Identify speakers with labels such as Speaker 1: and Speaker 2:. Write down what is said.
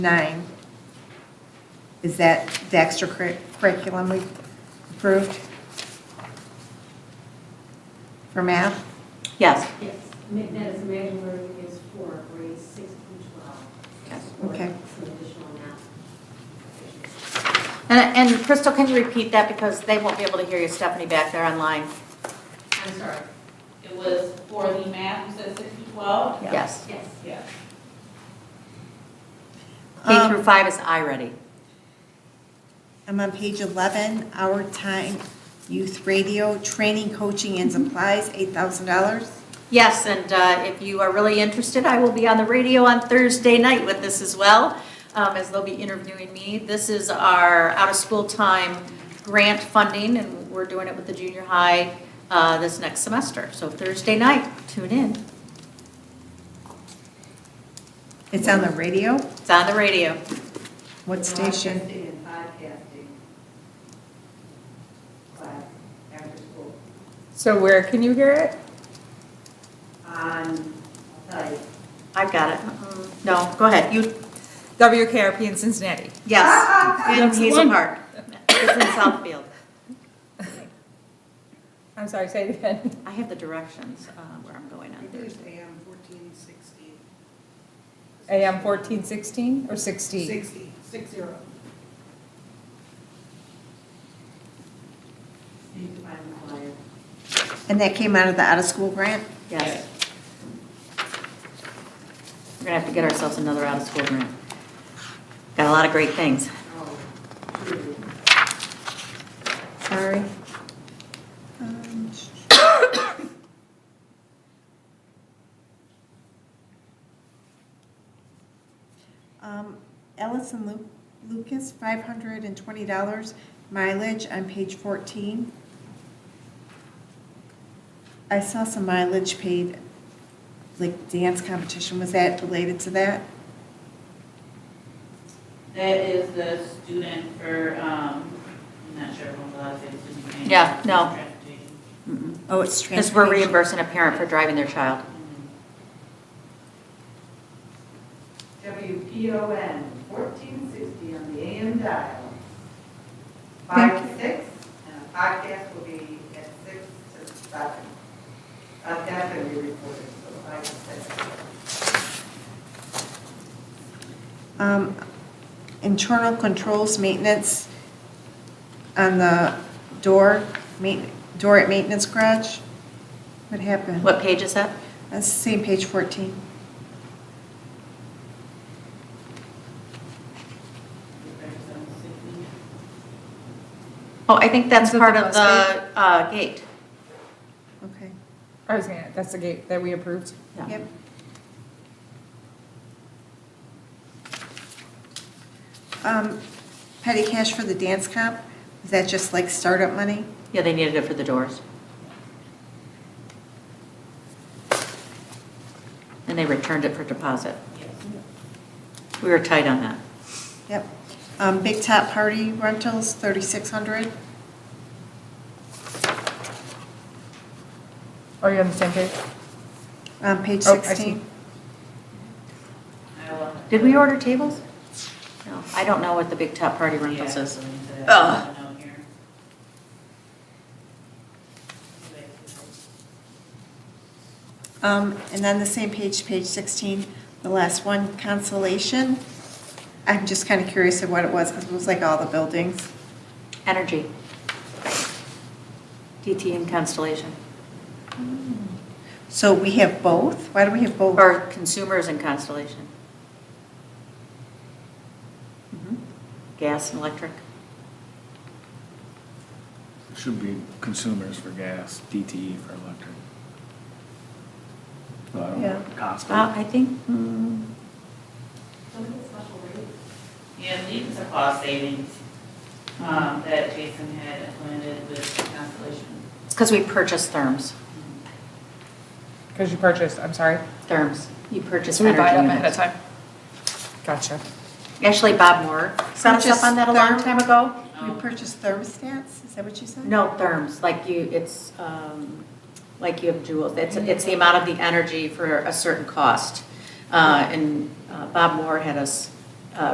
Speaker 1: nine, is that the extra curri- curriculum we approved? For math?
Speaker 2: Yes.
Speaker 3: Yes, ma- that is manual learning is for grades six through 12.
Speaker 1: Okay.
Speaker 3: For Some additional math.
Speaker 2: And, and Crystal, can you repeat that because they won't be able to hear you, Stephanie, back there online?
Speaker 3: I'm sorry,
Speaker 4: It was for the math, you said six to twelve?
Speaker 2: Yes.
Speaker 3: yes.
Speaker 4: Yes.
Speaker 2: K
Speaker 1: Um,
Speaker 2: through five is I-ready.
Speaker 1: I'm on page 11, our time, youth radio, training, coaching, and supplies, $8,000.
Speaker 2: Yes, and uh, if you are really interested, I will be on the radio on Thursday night with this as well, um, as they'll be interviewing me. This is our out-of-school time grant funding, and we're doing it with the junior high uh, this next semester. So Thursday night, tune in.
Speaker 1: It's on the radio?
Speaker 2: It's on the radio.
Speaker 1: What station?
Speaker 3: Broadcasting and podcasting class after school
Speaker 5: So where can you hear it?
Speaker 3: on site.
Speaker 2: I've got it. Mm, No, go ahead. You,
Speaker 5: WKRP in Cincinnati.
Speaker 2: yes, in
Speaker 5: That's the
Speaker 2: Hazel
Speaker 5: one.
Speaker 2: Park. It's in Southfield.
Speaker 5: I'm sorry, say it again.
Speaker 2: I have the directions uh, where I'm going on Thursday.
Speaker 6: AM fourteen sixty.
Speaker 5: AM 1416 or 16?
Speaker 6: Sixty, six zero.
Speaker 3: You can find the flyer.
Speaker 1: And that came out of the out-of-school grant?
Speaker 2: Yes. We're gonna have to get ourselves another out-of-school grant. Got a lot of great things.
Speaker 3: Oh, true.
Speaker 1: Sorry. Um, Um, Ellis and Lu- Lucas, $520 mileage on page 14. I saw some mileage paid, like dance competition, was that related to that?
Speaker 4: That is the student for, um, I'm not sure if I'm allowed to say the student name.
Speaker 2: Yeah, no.
Speaker 4: Transportation.
Speaker 1: Oh, it's
Speaker 2: Because we're
Speaker 1: transportation.
Speaker 2: reimbursing a parent for driving their child.
Speaker 3: WPON, fourteen sixty on the AM dial. Five to six, and a podcast will be at six to seven. Uh, that's gonna be recorded, so five to six.
Speaker 1: Um, Internal controls maintenance on the door, main- door at maintenance garage? What happened?
Speaker 2: What page is that?
Speaker 1: That's the same page 14.
Speaker 2: Oh, I think that's
Speaker 5: Is that
Speaker 2: part
Speaker 5: the
Speaker 2: of
Speaker 5: bus
Speaker 2: the uh, gate.
Speaker 1: Okay.
Speaker 5: I was gonna, that's the gate that we approved.
Speaker 2: Yeah.
Speaker 1: Yep. Um, Petty cash for the dance comp, is that just like startup money?
Speaker 2: Yeah, they needed it for the doors. And they returned it for deposit. We were tight on that.
Speaker 1: Yep. Um, Big Top Party Rentals, 3,600.
Speaker 5: Are you on the same page?
Speaker 1: Um, Page
Speaker 5: Oh, I see.
Speaker 1: 16.
Speaker 4: I will-
Speaker 2: Did we order tables? No, I don't know what the big top party rental
Speaker 4: Yeah,
Speaker 2: says.
Speaker 4: so we need to-
Speaker 2: Ugh.
Speaker 4: note here.
Speaker 1: Um, And then the same page, page 16, the last one, consolation. I'm just kind of curious of what it was, because it was like all the buildings.
Speaker 2: Energy. DT and Constellation,
Speaker 1: So we have both? Why do we have both?
Speaker 2: or consumers and Constellation. Mhm. Gas and electric.
Speaker 7: Should be consumers for gas, DTE for electric. So I don't know,
Speaker 1: Yeah.
Speaker 2: Uh,
Speaker 7: constant.
Speaker 2: I think,
Speaker 1: Hmm,
Speaker 2: mm,
Speaker 3: Some of the special rates.
Speaker 4: Yeah, these are cost savings, um, that Jason had implemented with Constellation.
Speaker 2: it's because we purchased therms,
Speaker 5: Because you purchased, I'm sorry.
Speaker 2: therms. You purchased
Speaker 5: So we buy them
Speaker 2: energy
Speaker 5: ahead of
Speaker 2: units.
Speaker 5: time? Gotcha.
Speaker 2: Actually, Bob Moore set us up on that a long
Speaker 1: Purchased
Speaker 2: time ago.
Speaker 1: You purchased thermostats, is that what you said?
Speaker 2: No, therms, like you, it's, um, like you have joules, it's, it's the amount of the energy for a certain cost. Uh, and uh, Bob Moore had us